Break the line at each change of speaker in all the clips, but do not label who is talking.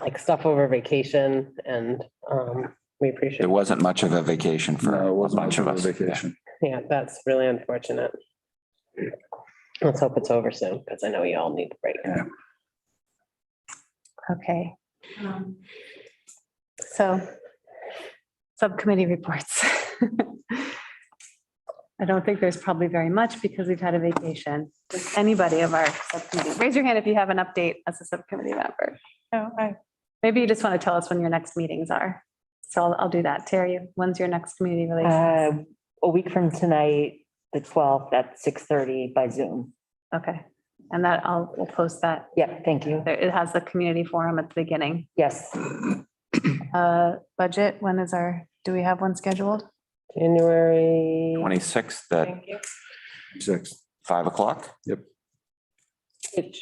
like stuff over vacation and um, we appreciate,
There wasn't much of a vacation for
No, it
a
wasn't much
bunch of
of a
us.
vacation.
yeah, that's really unfortunate. Let's hope it's over soon because I know you all need a break.
Okay,
Um,
so subcommittee reports. I don't think there's probably very much because we've had a vacation. Does anybody of our subcommittee, raise your hand if you have an update as a subcommittee member.
Oh, I,
Maybe you just want to tell us when your next meetings are. So I'll, I'll do that. Terry, when's your next community
Uh,
relations?
A week from tonight, the twelfth, at six thirty by Zoom.
Okay, and that I'll, we'll post that.
Yep, thank you.
There- It has the community forum at the beginning.
Yes,
Uh, budget, when is our, do we have one scheduled?
January.
Twenty-sixth at
thank you.
Six.
five o'clock.
It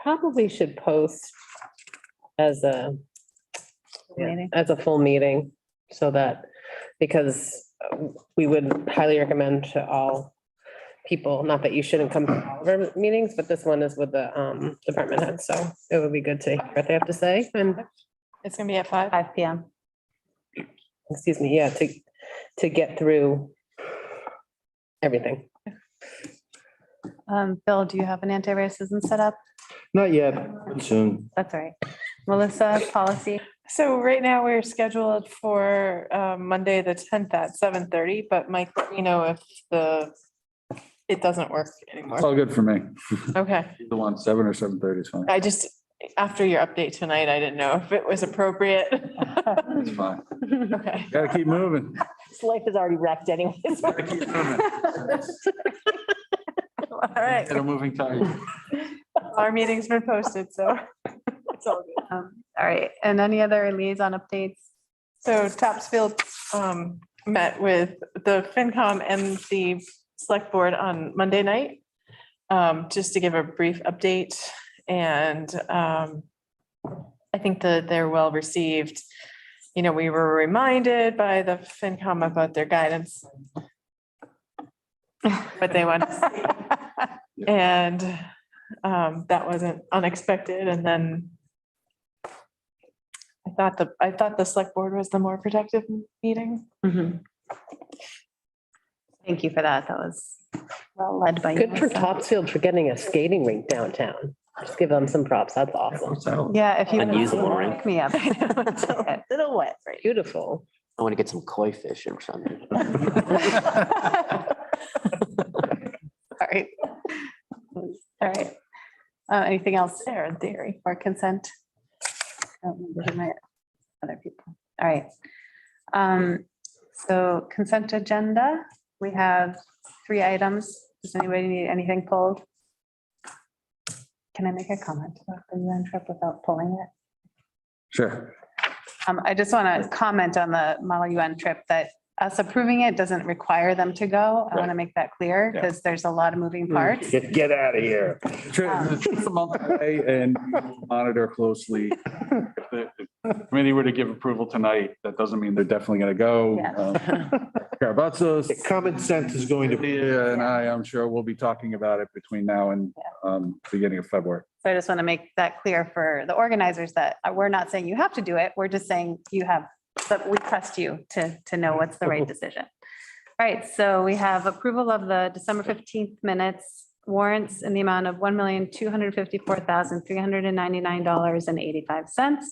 probably should post as a,
Meeting?
as a full meeting so that, because uh, we would highly recommend to all people, not that you shouldn't come to all of our meetings, but this one is with the um, department head, so it would be good to hear what they have to say and,
It's gonna be at five.
Five PM.
excuse me, yeah, to, to get through everything.
Um, Bill, do you have an anti-racism set up?
Not yet, soon.
That's all right. Melissa, policy?
So right now we're scheduled for uh, Monday, the tenth at seven thirty, but Mike, let me know if the, it doesn't work
It's
anymore.
all good for me.
Okay,
The one, seven or seven thirty is fine.
I just, after your update tonight, I didn't know if it was appropriate.
It's fine.
Okay.
Gotta keep moving.
This life is already wrecked anyways.
Gotta keep moving.
All right,
Get a moving target.
our meeting's been posted, so. it's all good.
Um, All right, and any other liaison updates?
So Topsfield um, met with the FinCom and the Select Board on Monday night, um, just to give a brief update. And um, I think that they're well received. You know, we were reminded by the FinCom about their guidance. What they want. to see. And um, that wasn't unexpected. And then I thought the, I thought the select board was the more productive meeting.
Thank you for that. That was well led by you.
Good for
Melissa.
Topsfield for getting a skating rink downtown. Just give them some props. That's awesome.
So,
Yeah, if you.
Unusable ring.
Pick Me up.
Little wet.
Beautiful.
I want to get some koi fish or something.
Sorry. All right. Uh, anything else there in theory or consent? I don't remember who my Other people. All right. Um, so consent agenda, we have three items. Does anybody need anything pulled? Can I make a comment about the UN trip without pulling it?
Sure.
Um, I just want to comment on the Model UN trip that us approving it doesn't require them to go. I want to make that clear
Yeah.
because there's a lot of moving parts.
Get, get out of here.
Tri- the trip's a month away And we'll monitor closely. If the the Committee were to give approval tonight, that doesn't mean they're definitely gonna go.
Yeah.
Um, Carabazos,
Common sense is going to.
Leah and I, I'm sure we'll be talking about it between now and um, beginning of February.
So I just want to make that clear for the organizers that uh, we're not saying you have to do it. We're just saying you have, but we trust you to, to know what's the right decision. All right, so we have approval of the December 15th minutes warrants in the amount of $1,254,399.85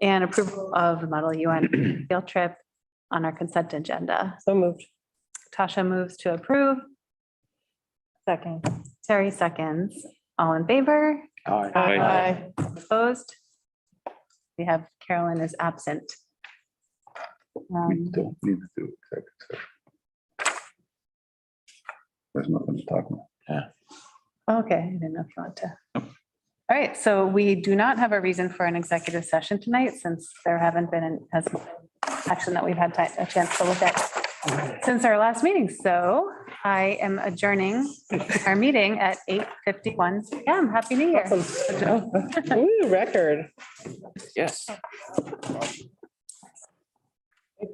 and approval of the Model UN field trip on our consent agenda.
So moved.
Tasha moves to approve. Second. Terry seconds. All in favor?
All right.
Bye.
Opposed? We have Carolyn is absent.
We
Um,
don't need to do executive session. There's nothing to talk about.
Okay, I didn't know if you want to. All right, so we do not have a reason for an executive session tonight since there haven't been an hasn't been action that we've had ti- a chance to look at since our last meeting. So I am adjourning our meeting at 8:51 PM. Happy New Year.
Awesome. Ooh, record.
Yes.